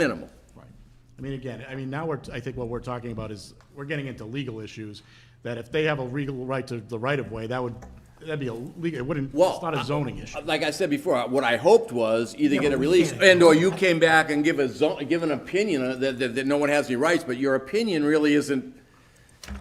minimal. Right. I mean, again, I mean, now we're, I think what we're talking about is, we're getting into legal issues, that if they have a legal right to the right-of-way, that would, that'd be a legal, it wouldn't, Well, it's not a zoning issue. Like I said before, what I hoped was either get a release and/or you came back and give a zone, give an opinion that, that, that no one has any rights, but your opinion really isn't,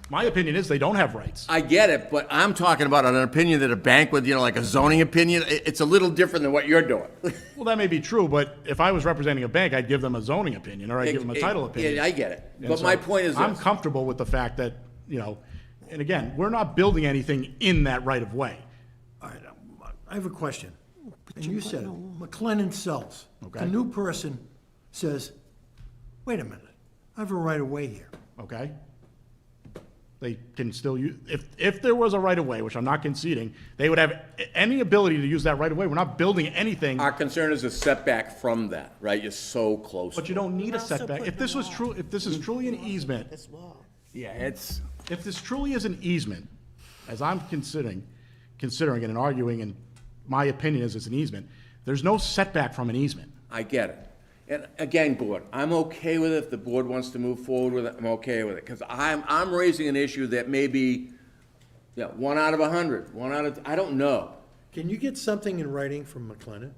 My opinion is they don't have rights. I get it, but I'm talking about an opinion that a bank would, you know, like a zoning opinion, it, it's a little different than what you're doing. Well, that may be true, but if I was representing a bank, I'd give them a zoning opinion, or I'd give them a title opinion. eh, Yeah, I get it, And but my so point is I'm this, comfortable with the fact that, you know, and again, we're not building anything in that right-of-way. All right, um, I have a question. And you said, it. McLennan sells. Okay. A new person says, wait a minute, I have a right of way here. okay? They can still use, if, if there was a right-of-way, which I'm not conceding, they would have a- any ability to use that right-of-way. We're not building anything, our concern is a setback from that, right, you're so close. but you don't need a setback. If this was true, if this is truly an easement, Yeah, it's. if this truly is an easement, as I'm considering, considering it and arguing, and my opinion is it's an easement, there's no setback from an easement. I get it. And again, board, I'm okay with it. If the board wants to move forward with it, I'm okay with it. Because I'm, I'm raising an issue that may be, yeah, one out of a hundred, one out of, I don't know. Can you get something in writing from McLennan?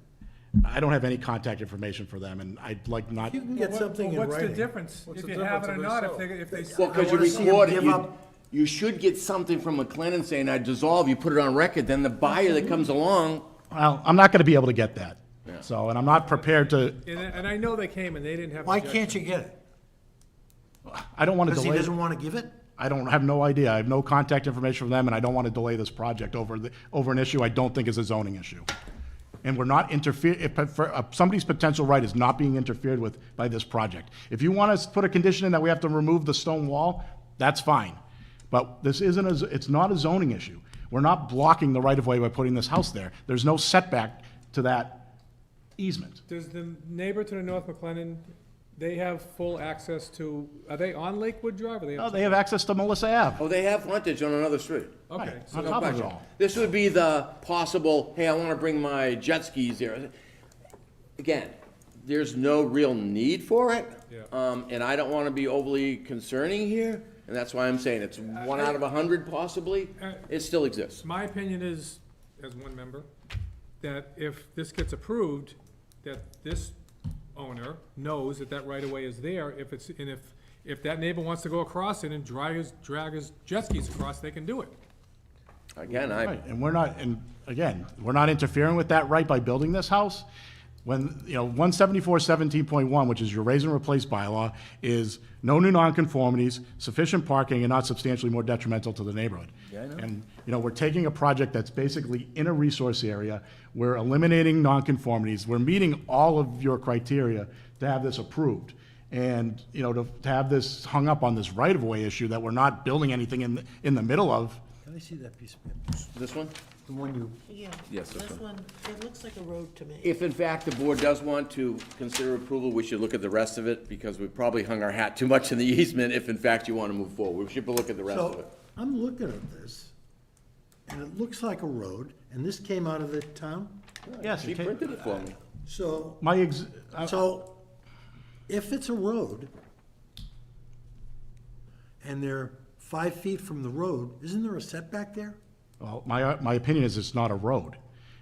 I don't have any contact information for them, and I'd like not, You can get What- something in well, writing. What's the difference, if you have it or not, if they, if they. Well, because you wanna see 'em record it, give you, up. you should get something from McLennan saying, I dissolve, you put it on record, then the buyer that comes along, well, I'm not gonna be able to get that. So, and I'm not prepared to, And, I- and I know they came and they didn't have. Why objection. can't you get it? I don't wanna Because delay. he doesn't want to give it? I don't, have no idea. I have no contact information from them, and I don't want to delay this project over, the- over an issue I don't think is a zoning issue. And we're not interfere, if, for- uh, somebody's potential right is not being interfered with by this project. If you want us to put a condition in that we have to remove the stone wall, that's fine. But this isn't, a z- it's not a zoning issue. We're not blocking the right-of-way by putting this house there. There's no setback to that easement. Does the neighbor to the north, McLennan, they have full access to, are they on Lakewood Drive, or they? No, have- They have access to Melissa Ave. oh, they have frontage on another street. Okay, Right, so on no top of it question. all. This would be the possible, hey, I want to bring my jet skis here. Again, there's no real need for it. Yeah. Um, and I don't want to be overly concerning here, and that's why I'm saying it's one out of a hundred possibly. Uh, It still exists. My opinion is, as one member, that if this gets approved, that this owner knows that that right-of-way is there, if it's, and if, if that neighbor wants to go across it and drag his, drag his jet skis across, they can do it. Again, I, Right, and we're not, and again, we're not interfering with that right by building this house. When, you know, one seventy-four seventeen point one, which is your raise and replace bylaw, is no new nonconformities, sufficient parking, and not substantially more detrimental to the neighborhood. Yeah, I know. And, you know, we're taking a project that's basically in a resource area, we're eliminating nonconformities, we're meeting all of your criteria to have this approved. And, you know, to, to have this hung up on this right-of-way issue that we're not building anything in, in the middle of, Let me see that piece of paper, this one? the one you, Yeah. Yes, this This one, it looks like a road to me. If in fact the board does want to consider approval, we should look at the rest of it, because we probably hung our hat too much in the easement, if in fact you want to move forward. We should look at the rest of so, it. I'm looking at this, and it looks like a road, and this came out of the town? yes. She it ca- printed it for me. So, My ex, uh, I- So, if it's a road, and they're five feet from the road, isn't there a setback there? well, my, my opinion is it's not a road.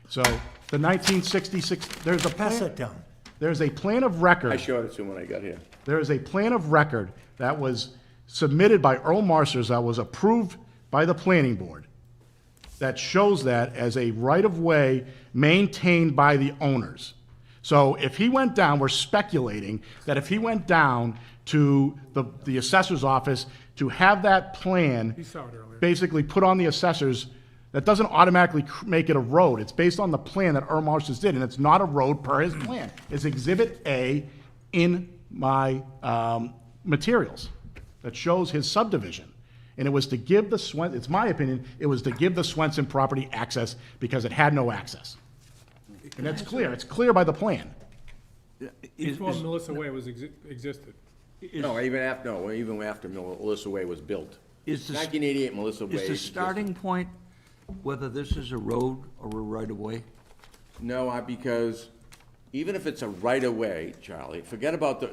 So the nineteen sixty-six, there's a Pass plan, that down. there's a plan of I record, showed it to him when I got here. there is a plan of record that was submitted by Earl Marsters that was approved by the planning board that shows that as a right-of-way maintained by the owners. So if he went down, we're speculating that if he went down to the, the assessor's office to have that plan. He saw it earlier. basically put on the assessors, that doesn't automatically cr- make it a road. It's based on the plan that Irm Marsh's did, and it's not a road per his plan. It's Exhibit A in my um, materials that shows his subdivision. And it was to give the Swen, it's my opinion, it was to give the Swenson property access because it had no access. And that's clear. It's clear by the plan. Before Melissa Way was, exi- existed. No, even after, no, even after Mel- Melissa Way was built. Is the- 1988 Melissa Way. Is the existed. starting point whether this is a road or a right-of-way? No, I- because even if it's a right-of-way, Charlie, forget about the,